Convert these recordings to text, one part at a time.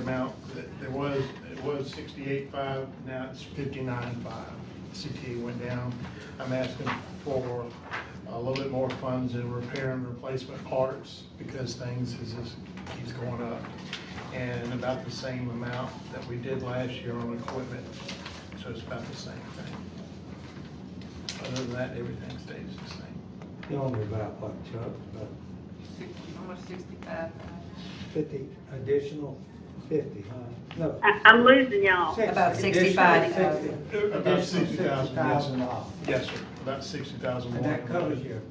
amount, that there was, it was sixty-eight five, now it's fifty-nine five. CTE went down. I'm asking for a little bit more funds in repair and replacement parts because things is just, keeps going up. And about the same amount that we did last year on equipment, so it's about the same thing. Other than that, everything stays the same. You only about what, Chuck, about Sixty, almost sixty-five. fifty, additional fifty, huh? No. I, I'm losing y'all. About additional 65,000. 60, About additional sixty thousand, yes. $60,000. Yes, sir, about sixty thousand. And that covers your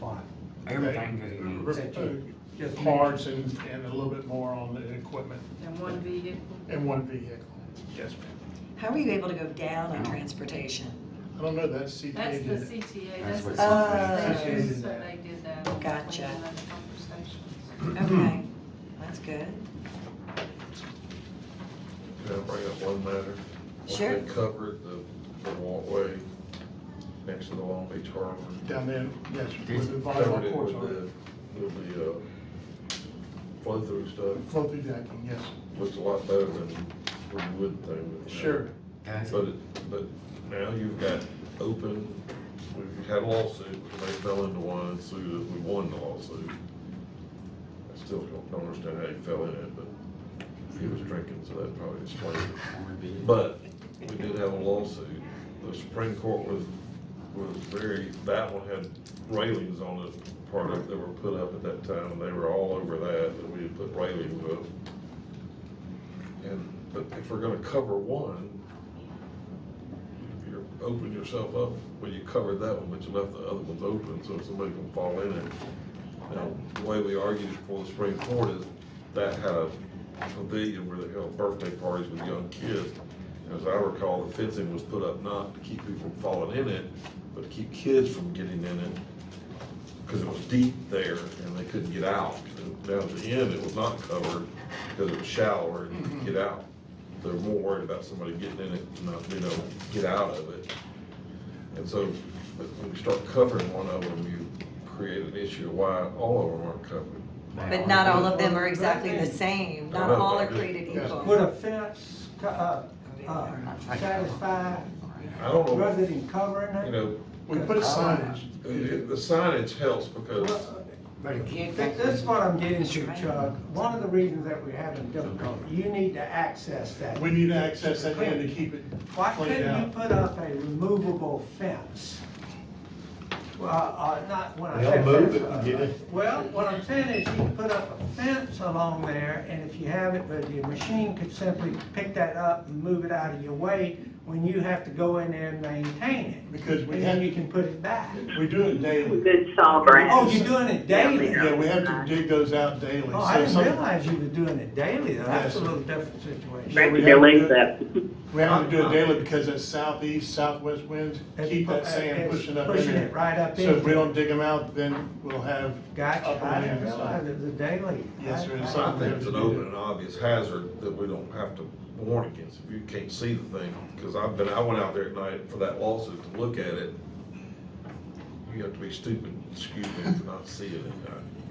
fine. Everything that he needs. Just make- Uh, Parts and, and a little bit more on the equipment And one vehicle. and one vehicle. Yes, ma'am. How are you able to go down on transportation? I don't know, that's CTA. That's the did it. CTA, that's That's the. what CTA did. That's what they did that. Gotcha. Between the conversations. Okay, that's good. Can I bring up one matter? Sure. They covered the, the walkway next to the Long Beach Harbor. Down there, yes, with the Covered volleyball it courts with on it. the, with the, uh, flow-through stuff, Flow through decking, yes. looks a lot better than the wood thing. that we had. Sure. That's But, it- but now you've got open, we had a lawsuit, they fell into one, sued us, we won the lawsuit. I still don't, don't understand how you fell in it, but he was drinking, so that probably explains it. But we did have a lawsuit. The Supreme Court was, was very, that one had railings on it, part of, that were put up at that time, and they were all over that, that we had put railings up. And, but if we're gonna cover one, you're opening yourself up, well, you covered that one, but you left the other ones open, so if somebody can fall in it. Now, the way we argued before the Supreme Court is that had a pavilion where they held birthday parties with young kids. And As I recall, the fencing was put up not to keep people from falling in it, but to keep kids from getting in it. Cause it was deep there and they couldn't get out. And Down at the end, it was not covered because it was shallower and you could get out. They're more worried about somebody getting in it and not, you know, get out of it. And so, but when we start covering one of them, you create an issue of why all of them aren't covered. But not all of them are exactly the same. Not all are created Would equal. a fence, co- uh, uh, satisfy I don't rather know, than covering you it? know, We put a signage. the the signage helps because Well, But a Th- kid can't. This is what I'm getting to, Chuck. One of the reasons that we're having difficulty, you need to access that. We need to access that end to keep it Why cleaned couldn't you out. put up a removable fence? Well, uh, not when I They'll say move fence, it, uh, get it. Well, what I'm saying is you can put up a fence along there and if you have it, but your machine could simply pick that up and move it out of your way when you have to go in there and maintain it. Because we And then you have, can put it back. we do it daily. Good saw, Brad. Oh, you're doing it daily? Yeah, we have to dig those out daily. Oh, I So didn't some- realize you were doing it daily, though. That's a Yes. little different situation. Right. Brad, delete that. We have to Uh, do it daily because that southeast, southwest winds keep that sand It's pushing up in Pushing there. it right up in. So if we don't dig them out, then we'll have Gotcha, upper I didn't winds. realize it was a daily. Yes, sir, it's I- I- I think it's an open and obvious hazard that we don't have to warn against. If you can't see the thing, because I've been, I went out there at night for that lawsuit to look at it. You have to be stupid, excuse me, for not seeing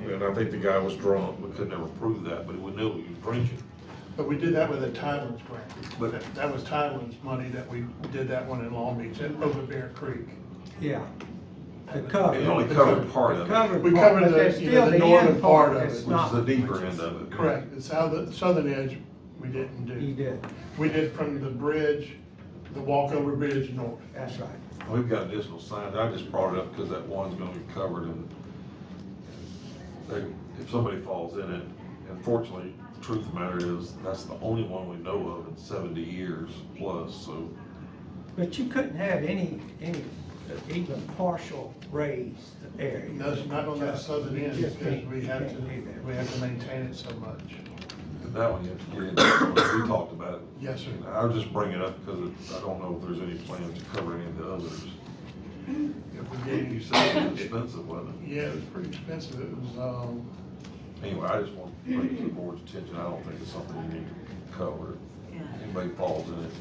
it. And I think the guy was drunk. We could never prove that, but we knew he was drinking. But we did that with a Tylen's grant. But- That- That was Tylen's money that we did that one in Long Beach, at- over Bear Creek. Yeah. The It only cover. covered part of it, Covered We part, covered but the- there's you know, still the the northern end part part of that's it. which is not. the deeper end of it. Correct, the southern, southern edge, we didn't You do. did, We did from the bridge, the walkover bridge north. that's right. We've got additional signs, I just brought it up because that one's gonna be covered and they- if somebody falls in it, and fortunately, truth of the matter is, that's the only one we know of in seventy years plus, so. But you couldn't have any, any, even partial raised area. No, it's not on that southern end You just because can't- we you have can't do to, that. we have to maintain it so much. and That one you have to get into, we talked about it. Yes, sir. And I'll just bring it up because it- I don't know if there's any plan to cover any of the others. If we did- You said it was expensive, wasn't it? Yeah, it was pretty expensive. It was, um, Anyway, I just want to bring it to the board's attention, I don't think it's something we need to cover. Yeah. Anybody falls in it,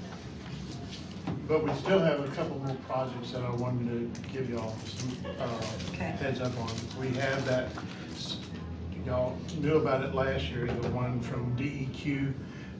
but we still have a couple more projects that I wanted to give y'all some, uh, Okay. heads up on. We have E that, y'all knew about it last year, the one from DEQ